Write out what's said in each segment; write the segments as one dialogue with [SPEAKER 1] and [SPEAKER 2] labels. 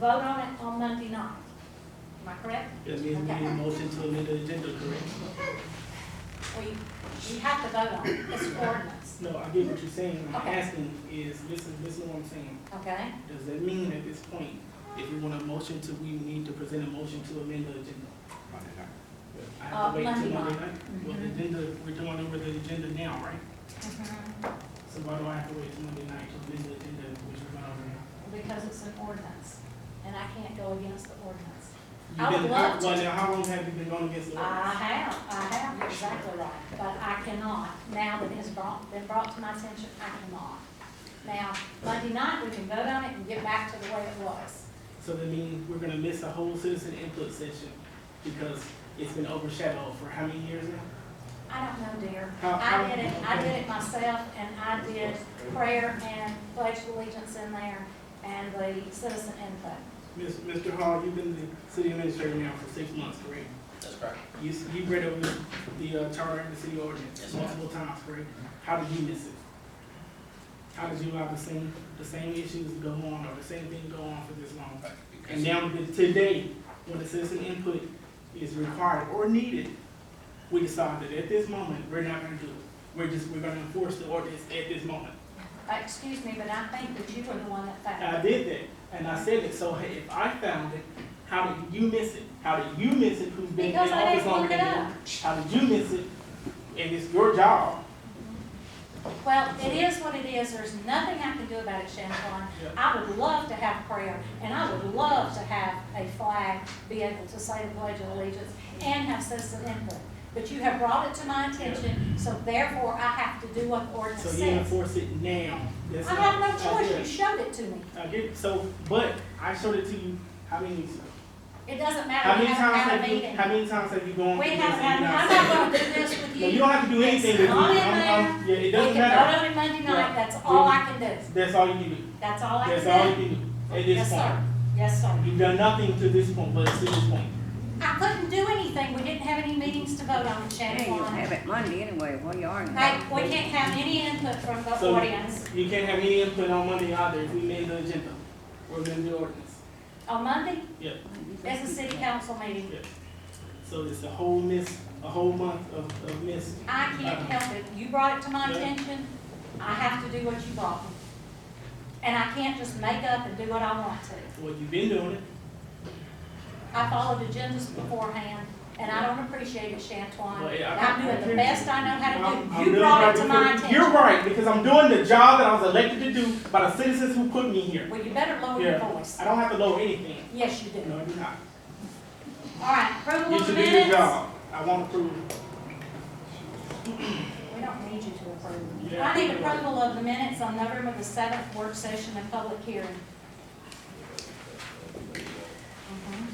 [SPEAKER 1] vote on it on Monday night. Am I correct?
[SPEAKER 2] Yes, we need a motion to amend the agenda, correct?
[SPEAKER 1] Or you, you have to vote on it, it's ordinance,
[SPEAKER 2] No, I get what you're saying. I'm
[SPEAKER 1] Okay.
[SPEAKER 2] asking is, listen, listen to what I'm saying.
[SPEAKER 1] okay?
[SPEAKER 2] Does that mean at this point, if you want a motion to, we need to present a motion to amend the agenda? I have
[SPEAKER 1] Uh,
[SPEAKER 2] to wait till
[SPEAKER 1] Monday
[SPEAKER 2] Monday
[SPEAKER 1] night. Mm-hmm.
[SPEAKER 2] night? Well, the agenda, we're doing over the agenda now, right? So why do I have to wait till Monday night to amend the agenda, which we're not over now?
[SPEAKER 1] Because it's an ordinance, and I can't go against the ordinance.
[SPEAKER 2] You've
[SPEAKER 1] I would
[SPEAKER 2] been-
[SPEAKER 1] love to. Uh,
[SPEAKER 2] Well, now, how long have you been going against the
[SPEAKER 1] I
[SPEAKER 2] ordinance?
[SPEAKER 1] have, I have, you're exactly right, but I cannot, now that it's brought, been brought to my attention, I cannot. Now, Monday night, we can vote on it and get back to the way it was.
[SPEAKER 2] So that means we're gonna miss a whole citizen input session because it's been overshadowed for how many years now?
[SPEAKER 1] I don't know, dear.
[SPEAKER 2] How-
[SPEAKER 1] I
[SPEAKER 2] how-
[SPEAKER 1] did it, I did it myself, and I did prayer and pledge of allegiance in there, and the citizen input.
[SPEAKER 2] Miss- Mr. Hall, you've been the city administrator now for six months, correct?
[SPEAKER 3] That's correct.
[SPEAKER 2] You, s- you read over the uh, charter and the city ordinance
[SPEAKER 3] Yes, ma'am.
[SPEAKER 2] multiple times, correct? How did you miss it? How did you allow the same, the same issues to go on or the same thing go on for this long? And now, to- today, when the citizen input is required or needed, we decide that at this moment, we're not gonna do it. We're just, we're gonna enforce the ordinance at this moment.
[SPEAKER 1] Uh, Excuse me, but I think that you were the one that
[SPEAKER 2] And I
[SPEAKER 1] found it.
[SPEAKER 2] did that, and I said it, so hey, if I found it, how did you miss it? How did you miss it, who's been in
[SPEAKER 1] Because I
[SPEAKER 2] office
[SPEAKER 1] didn't
[SPEAKER 2] longer
[SPEAKER 1] look it
[SPEAKER 2] than
[SPEAKER 1] up.
[SPEAKER 2] you? How did you miss it? And it's your job
[SPEAKER 1] Well, it is what it is, there's nothing I can do about it, Chantel. I would love to have prayer, and I would love to have a flag, be able to say the pledge of allegiance, and have citizen input. But you have brought it to my attention, so therefore I have to do what the ordinance
[SPEAKER 2] So you
[SPEAKER 1] says.
[SPEAKER 2] enforce it now. That's
[SPEAKER 1] I
[SPEAKER 2] not-
[SPEAKER 1] have no
[SPEAKER 2] I
[SPEAKER 1] choice,
[SPEAKER 2] get
[SPEAKER 1] you
[SPEAKER 2] it.
[SPEAKER 1] showed it to me.
[SPEAKER 2] I get it. so, but I showed it to you, how many weeks ago?
[SPEAKER 1] It doesn't
[SPEAKER 2] How
[SPEAKER 1] matter, we
[SPEAKER 2] many
[SPEAKER 1] haven't
[SPEAKER 2] times
[SPEAKER 1] had a
[SPEAKER 2] have you,
[SPEAKER 1] meeting.
[SPEAKER 2] how many times have you gone?
[SPEAKER 1] We
[SPEAKER 2] through
[SPEAKER 1] haven't
[SPEAKER 2] this
[SPEAKER 1] had,
[SPEAKER 2] and not
[SPEAKER 1] I'm
[SPEAKER 2] said
[SPEAKER 1] not
[SPEAKER 2] it?
[SPEAKER 1] gonna do this with
[SPEAKER 2] No, you
[SPEAKER 1] you.
[SPEAKER 2] don't have to do anything
[SPEAKER 1] It's
[SPEAKER 2] with me.
[SPEAKER 1] not in
[SPEAKER 2] I'm- I'm- Yeah, it
[SPEAKER 1] We
[SPEAKER 2] doesn't
[SPEAKER 1] can
[SPEAKER 2] matter.
[SPEAKER 1] vote on it Monday
[SPEAKER 2] Yeah.
[SPEAKER 1] night, that's all I can do,
[SPEAKER 2] That's all you can do.
[SPEAKER 1] that's all I can
[SPEAKER 2] That's
[SPEAKER 1] do.
[SPEAKER 2] all you can do at
[SPEAKER 1] Yes,
[SPEAKER 2] this
[SPEAKER 1] sir,
[SPEAKER 2] point.
[SPEAKER 1] yes, sir.
[SPEAKER 2] You've done nothing to this point, but to this point.
[SPEAKER 1] I couldn't do anything, we didn't have any meetings to vote on,
[SPEAKER 4] Yeah,
[SPEAKER 1] Shannon.
[SPEAKER 4] you'll have it Monday anyway, well, you are.
[SPEAKER 1] Hey, we can't have any input from the
[SPEAKER 2] So-
[SPEAKER 1] audience.
[SPEAKER 2] You can't have any input on Monday either if we made the agenda or amend the ordinance.
[SPEAKER 1] On Monday,
[SPEAKER 2] Yeah,
[SPEAKER 1] it's a city council meeting.
[SPEAKER 2] yeah. So it's a whole miss, a whole month of, of miss. Uh,
[SPEAKER 1] I can't help it. You brought it to my
[SPEAKER 2] Uh-huh. Yeah.
[SPEAKER 1] attention, I have to do what you brought me. And I can't just make up and do what I want to.
[SPEAKER 2] Well, you've been doing it.
[SPEAKER 1] I followed agendas beforehand, and I don't appreciate it, Chantuan.
[SPEAKER 2] Well, yeah, I-
[SPEAKER 1] I'm doing the best I know
[SPEAKER 2] I'm-
[SPEAKER 1] how
[SPEAKER 2] I'm
[SPEAKER 1] to do. You
[SPEAKER 2] really
[SPEAKER 1] brought
[SPEAKER 2] right
[SPEAKER 1] it to
[SPEAKER 2] because-
[SPEAKER 1] my attention.
[SPEAKER 2] You're right, because I'm doing the job that I was elected to do by the citizens who put me here.
[SPEAKER 1] Well, you better lower your
[SPEAKER 2] Yeah,
[SPEAKER 1] voice.
[SPEAKER 2] I don't have to lower anything.
[SPEAKER 1] Yes, you do.
[SPEAKER 2] No, I do not.
[SPEAKER 1] All right, approval
[SPEAKER 2] You
[SPEAKER 1] of the
[SPEAKER 2] should do your
[SPEAKER 1] minutes.
[SPEAKER 2] job. I want to prove.
[SPEAKER 1] We don't need you to approve.
[SPEAKER 2] Yeah.
[SPEAKER 1] I need approval of the minutes on November the seventh, work session and public hearing. Mhm.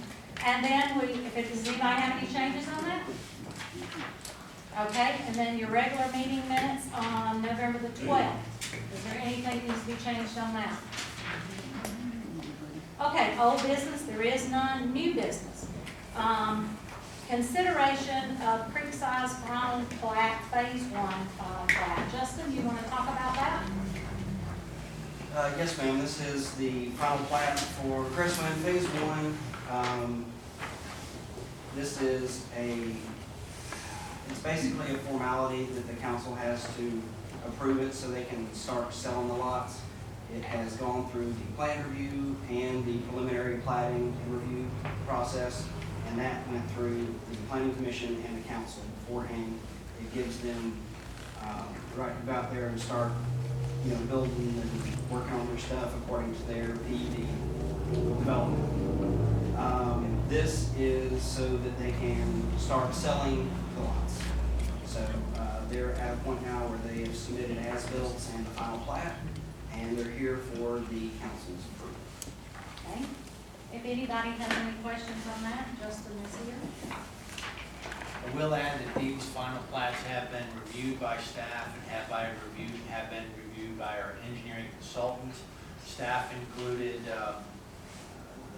[SPEAKER 1] And then we, if it, does anybody have any changes on that? Okay, and then your regular meeting minutes on November the twelfth. Is there anything that needs to be changed on that? Okay, old business, there is none, new business. Um, Consideration of Creekside Brown plat, phase one, uh, plat. Justin, you wanna talk about that?
[SPEAKER 3] Uh, yes, ma'am, this is the final plat for Crestline Phase One. Um, this is a, it's basically a formality that the council has to approve it so they can start selling the lots. It has gone through the plan review and the preliminary plating and review process, and that went through the planning commission and the council beforehand. It gives them, uh, right about there to start you know, building and working on their stuff according to their PED development. Um, this is so that they can start selling the lots. So, uh, they're at a point now where they have submitted as builts and the final plat, and they're here for the council's approval.
[SPEAKER 1] Okay. If anybody has any questions on that, Justin is here.
[SPEAKER 5] I will add that these final plats have been reviewed by staff and have by reviewed, have been reviewed by our engineering consultants. Staff included, um,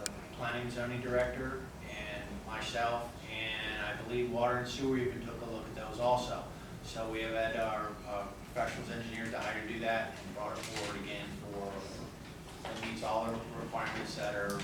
[SPEAKER 5] the planning zoning director and myself, and I believe water and sewer even took a look at those also. So we have had our, uh, professionals engineers to hire to do that and brought it forward again for, it meets all the requirements that are